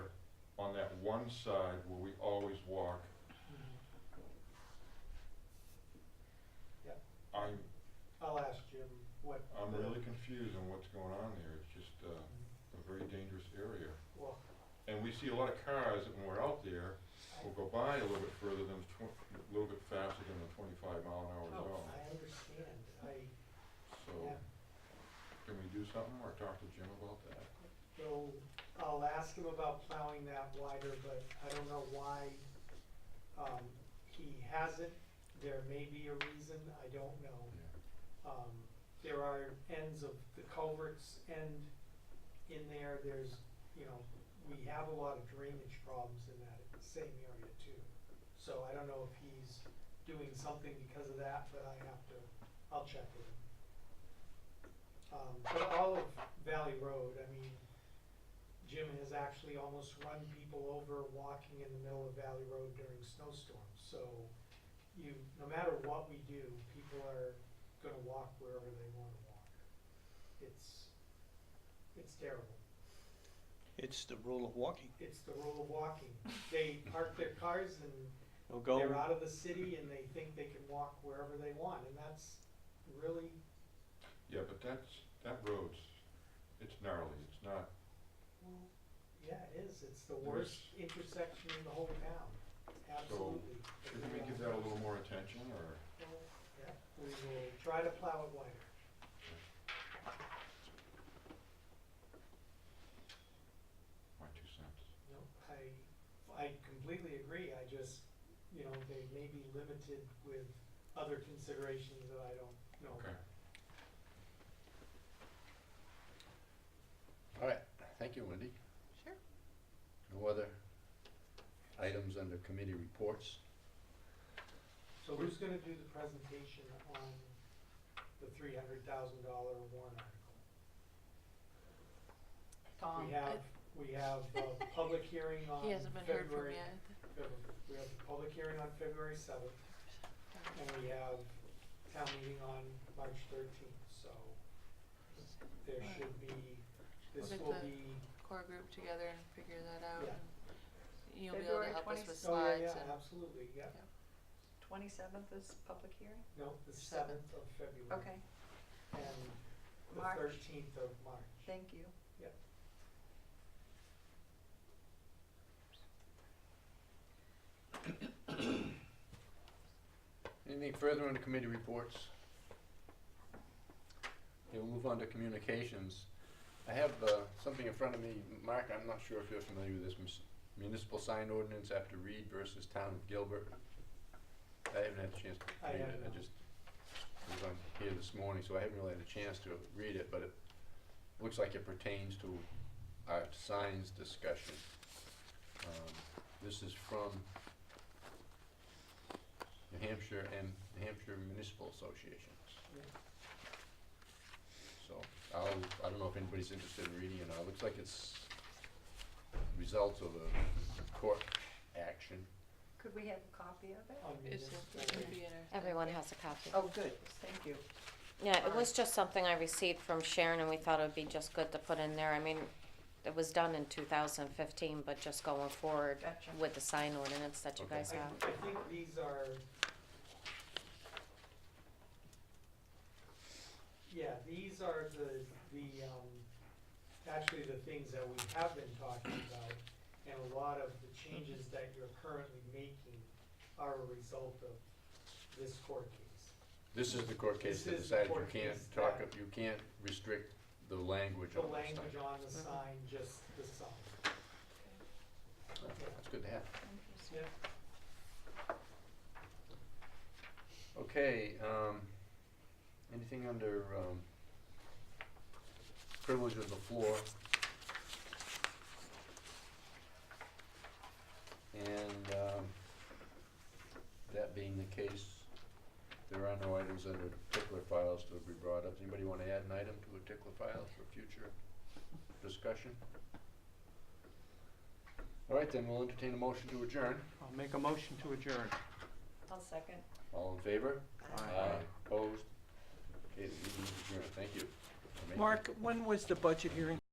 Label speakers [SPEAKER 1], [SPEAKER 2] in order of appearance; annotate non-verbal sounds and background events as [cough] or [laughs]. [SPEAKER 1] on that one side where we always walk.
[SPEAKER 2] Hmm. Yep.
[SPEAKER 1] I'm,
[SPEAKER 2] I'll ask Jim what.
[SPEAKER 1] I'm
[SPEAKER 2] the-
[SPEAKER 1] really confused on what's going on there. It's just, uh, a very dangerous area.
[SPEAKER 2] Well,
[SPEAKER 1] And we see a lot of cars that when we're out there, will go by a little bit further than, tw- a little bit faster than the twenty-five mile an hour
[SPEAKER 2] oh,
[SPEAKER 1] zone.
[SPEAKER 2] I understand, I
[SPEAKER 1] So,
[SPEAKER 2] yeah.
[SPEAKER 1] can we do something or talk to Jim about that?
[SPEAKER 2] will, I'll ask him about plowing that wider, but I don't know why, um, he hasn't. There may be a reason, I don't know. Um, there are ends of the culverts end in there, there's, you know, we have a lot of drainage problems in that same area too. So I don't know if he's doing something because of that, but I have to, I'll check with him. Um, but all of Valley Road, I mean, Jim has actually almost run people over walking in the middle of Valley Road during snowstorms, so you, no matter what we do, people are gonna walk wherever they wanna walk. It's, it's terrible.
[SPEAKER 3] It's the rule of walking.
[SPEAKER 2] It's the rule of walking. They park their cars and
[SPEAKER 3] You'll
[SPEAKER 2] they're
[SPEAKER 3] go,
[SPEAKER 2] out of the city and they think they can walk wherever they want, and that's really,
[SPEAKER 1] Yeah, but that's, that road's, it's gnarly, it's not,
[SPEAKER 2] well, yeah, it is. It's the
[SPEAKER 1] There
[SPEAKER 2] worst
[SPEAKER 1] is-
[SPEAKER 2] intersection in the whole town, absolutely.
[SPEAKER 1] shouldn't we give that a little more attention or?
[SPEAKER 2] Well, yeah, We will try to plow it wider.
[SPEAKER 1] My two cents.
[SPEAKER 2] No, I, I completely agree, I just, you know, they may be limited with other considerations that I don't know.
[SPEAKER 1] Okay.
[SPEAKER 4] All right, thank you, Wendy.
[SPEAKER 5] Sure.
[SPEAKER 4] No other items under committee reports?
[SPEAKER 2] So who's gonna do the presentation on the three hundred thousand dollar warrant article? We
[SPEAKER 5] Tom.
[SPEAKER 2] have, we have
[SPEAKER 5] [laughs]
[SPEAKER 2] a public hearing on
[SPEAKER 5] Um, He hasn't been heard from
[SPEAKER 2] February,
[SPEAKER 5] yet.
[SPEAKER 2] February- we have a public hearing on February seventh, and we have town meeting on March thirteenth, so there should be, this
[SPEAKER 5] We'll get
[SPEAKER 2] will
[SPEAKER 5] the-
[SPEAKER 2] be,
[SPEAKER 5] Core group together and figure that out.
[SPEAKER 2] Yeah.
[SPEAKER 5] and You'll be able to
[SPEAKER 6] February
[SPEAKER 5] help us
[SPEAKER 6] 20th.
[SPEAKER 5] with
[SPEAKER 2] oh, yeah,
[SPEAKER 5] slides
[SPEAKER 2] yeah,
[SPEAKER 5] and,
[SPEAKER 2] absolutely, yeah,
[SPEAKER 6] Twenty-seventh is public hearing?
[SPEAKER 2] no, the seventh
[SPEAKER 5] Seventh.
[SPEAKER 2] of February.
[SPEAKER 6] Okay,
[SPEAKER 2] And the
[SPEAKER 6] March.
[SPEAKER 2] thirteenth of March.
[SPEAKER 6] thank you.
[SPEAKER 2] Yep.
[SPEAKER 4] Anything further under committee reports? Okay, we'll move on to communications. I have uh, something in front of me, Mark, I'm not sure if you're familiar with this mus- municipal sign ordinance after Reed versus Town of Gilbert. I haven't had a chance
[SPEAKER 2] I
[SPEAKER 4] to read
[SPEAKER 2] have
[SPEAKER 4] it,
[SPEAKER 2] not.
[SPEAKER 4] I just was on here this morning, so I haven't really had a chance to read it, but it looks like it pertains to our signs discussion. Um, This is from New Hampshire and New Hampshire Municipal Associations.
[SPEAKER 2] Yeah.
[SPEAKER 4] So, I'll, I don't know if anybody's interested in reading it, now. it looks like it's results of a court action.
[SPEAKER 6] Could we have a copy of it?
[SPEAKER 2] on
[SPEAKER 5] it's,
[SPEAKER 2] municipal-
[SPEAKER 5] it'll be in our.
[SPEAKER 7] Everyone has a copy.
[SPEAKER 6] Oh, good, thank you.
[SPEAKER 7] Yeah, it was just something I received from Sharon and we thought it would be just good to put in there. I mean, it was done in two thousand fifteen, but just going forward
[SPEAKER 6] Gotcha.
[SPEAKER 7] with the sign ordinance that you
[SPEAKER 4] Okay.
[SPEAKER 7] guys
[SPEAKER 2] I,
[SPEAKER 7] have.
[SPEAKER 2] I think these are. Yeah, these are the, the, um, actually the things that we have been talking about. And a lot of the changes that you're currently making are a result of this court case.
[SPEAKER 4] This is the court case
[SPEAKER 2] This
[SPEAKER 4] that
[SPEAKER 2] is the
[SPEAKER 4] decided you
[SPEAKER 2] court
[SPEAKER 4] can't
[SPEAKER 2] case
[SPEAKER 4] talk,
[SPEAKER 2] that-
[SPEAKER 4] of- you can't restrict the language
[SPEAKER 2] The
[SPEAKER 4] on the sign.
[SPEAKER 2] language on the
[SPEAKER 7] Mhm.
[SPEAKER 2] sign, just the sign.
[SPEAKER 4] That's good to have.
[SPEAKER 6] Interesting.
[SPEAKER 2] Yeah.
[SPEAKER 4] Okay, um, anything under, um, privilege of the floor? And, um, that being the case, there are no items under particular files to be brought up. Anybody wanna add an item to a particular file for future discussion? All right, then we'll entertain a motion to adjourn.
[SPEAKER 3] I'll make a motion to adjourn.
[SPEAKER 6] I'll second.
[SPEAKER 4] All in favor?
[SPEAKER 3] Aye.
[SPEAKER 4] Opposed? Okay, the meeting is adjourned, thank you. Amazing.
[SPEAKER 3] Mark, when was the budget hearing?